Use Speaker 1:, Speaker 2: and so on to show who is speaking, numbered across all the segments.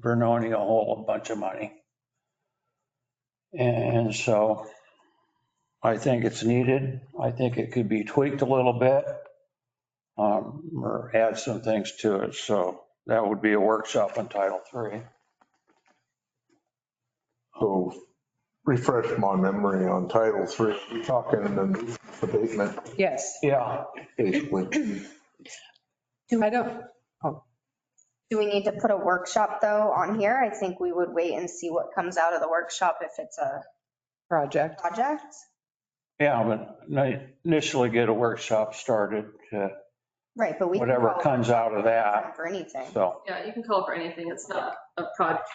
Speaker 1: Bernoni a whole bunch of money. And so I think it's needed. I think it could be tweaked a little bit um, or add some things to it. So that would be a workshop on Title III.
Speaker 2: So refresh my memory on Title III, we're talking the nuisance abatement,
Speaker 3: Yes.
Speaker 1: Yeah,
Speaker 2: basically.
Speaker 3: I don't,
Speaker 4: Do we need to put a workshop though on here? I think we would wait and see what comes out of the workshop if it's a
Speaker 3: project.
Speaker 4: project.
Speaker 1: yeah, but initially get a workshop started, uh,
Speaker 4: Right, but we. can
Speaker 1: whatever
Speaker 4: call
Speaker 1: comes out of that.
Speaker 4: For anything.
Speaker 1: So,
Speaker 5: Yeah, you can call for anything. It's not a project.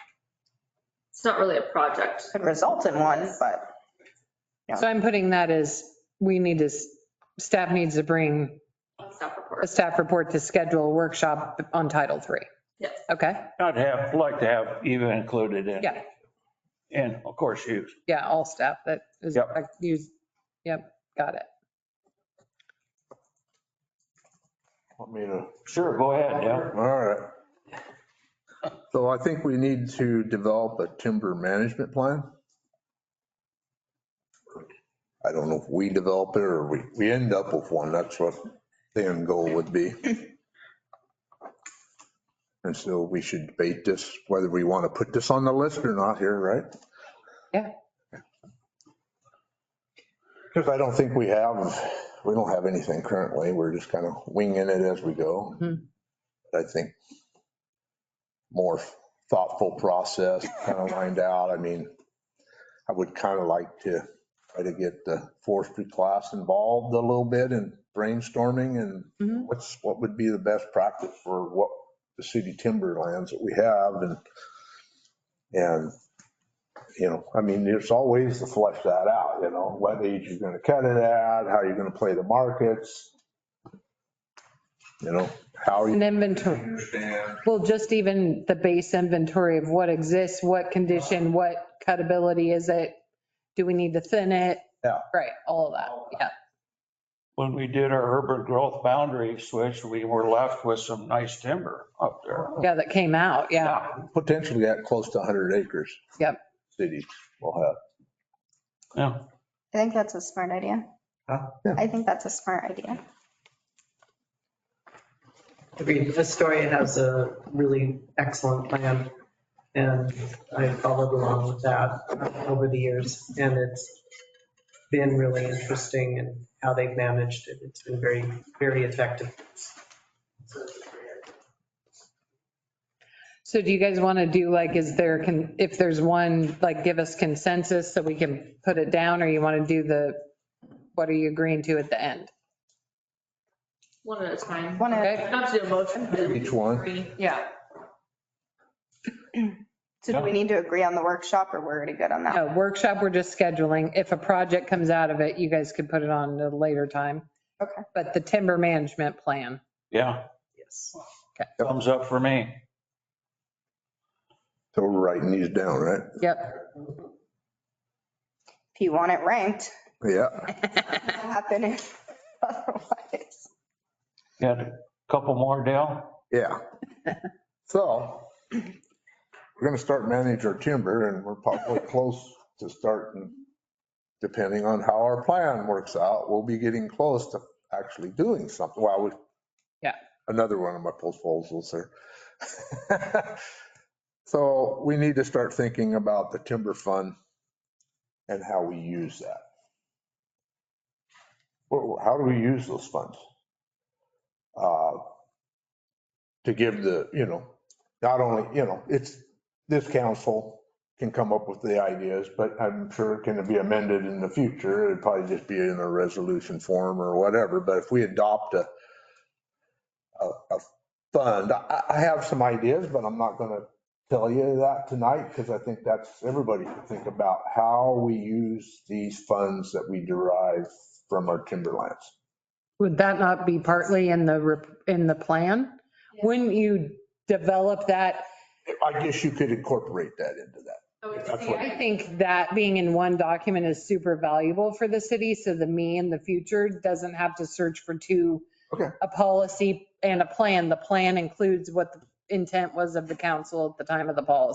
Speaker 5: It's not really a project.
Speaker 4: Could result in one, but
Speaker 3: So I'm putting that as, we need to, s- staff needs to bring
Speaker 5: Staff
Speaker 3: a
Speaker 5: report.
Speaker 3: staff report to schedule a workshop on Title III.
Speaker 5: Yes.
Speaker 3: Okay,
Speaker 1: I'd have, like to have Eva included in.
Speaker 3: yeah,
Speaker 1: And of course, you.
Speaker 3: yeah, all staff that is,
Speaker 1: Yep.
Speaker 3: I use- yep, got it.
Speaker 2: Want me to?
Speaker 1: Sure, go ahead, yeah.
Speaker 2: All right. So I think we need to develop a timber management plan. I don't know if we develop it or we, we end up with one. That's what the end goal would be. And so we should debate this, whether we want to put this on the list or not here, right?
Speaker 3: Yeah.
Speaker 2: Because I don't think we have, we don't have anything currently. We're just kind of winging it as we go.
Speaker 3: Mhm.
Speaker 2: I think more thoughtful process, kind of lined out. I mean, I would kind of like to try to get the forestry class involved a little bit in brainstorming
Speaker 3: Mhm.
Speaker 2: and what's, what would be the best practice for what the city timberlands that we have and, and, you know, I mean, there's always to flesh that out, you know, what age you're going to cut it at, how you're going to play the markets, you know, how you
Speaker 3: An inventory,
Speaker 2: understand
Speaker 3: well, just even the base inventory of what exists, what condition, what cutability is it? Do we need to thin it?
Speaker 2: Yeah.
Speaker 3: Right, all of that, yeah.
Speaker 1: When we did our urban growth boundary switch, we were left with some nice timber up there.
Speaker 3: Yeah, that came out, yeah.
Speaker 2: potentially at close to 100 acres.
Speaker 3: Yep.
Speaker 2: Cities will have.
Speaker 1: Yeah,
Speaker 4: I think that's a smart idea.
Speaker 2: Huh? Yeah.
Speaker 4: I think that's a smart idea.
Speaker 6: Agreed. Astoria has a really excellent plan, and I followed along with that over the years, and it's been really interesting in how they've managed it. It's been very, very effective.
Speaker 3: So do you guys want to do like, is there, can, if there's one, like give us consensus so we can put it down? Or you want to do the, what are you agreeing to at the end?
Speaker 5: One at a time.
Speaker 4: One of,
Speaker 3: Okay,
Speaker 5: Not to do a motion. but
Speaker 2: Each one.
Speaker 5: three.
Speaker 3: yeah.
Speaker 4: so do we need to agree on the workshop or we're already good on that?
Speaker 3: No, workshop, we're just scheduling. If a project comes out of it, you guys could put it on at a later time.
Speaker 4: Okay.
Speaker 3: But the timber management plan,
Speaker 1: yeah,
Speaker 6: Yes.
Speaker 1: thumbs up for me.
Speaker 2: So we're writing these down, right?
Speaker 3: yep.
Speaker 4: If you want it ranked,
Speaker 2: Yeah.
Speaker 4: it'll happen if- otherwise.
Speaker 1: Got a couple more, Dale?
Speaker 2: Yeah. So we're going to start manage our timber and we're probably close to starting, depending on how our plan works out, we'll be getting close to actually doing something. Wow. we-
Speaker 3: Yeah.
Speaker 2: Another one of my proposals there. So we need to start thinking about the timber fund and how we use that. Well, How do we use those funds? Uh, To give the, you know, not only, you know, it's, this council can come up with the ideas, but I'm sure it can be amended in the future. It'd probably just be in a resolution form or whatever, but if we adopt a, a, a fund, I, I have some ideas, but I'm not gonna tell you that tonight because I think that's, everybody should think about how we use these funds that we derive from our timberlands.
Speaker 3: Would that not be partly in the, rep- in the plan? Wouldn't you develop that
Speaker 2: I guess you could incorporate that into that.
Speaker 5: I would
Speaker 2: That's
Speaker 5: say-
Speaker 2: what-
Speaker 3: I think that being in one document is super valuable for the city, so the me in the future doesn't have to search for two.
Speaker 2: Okay.
Speaker 3: A policy and a plan. The plan includes what the intent was of the council at the time of the policy.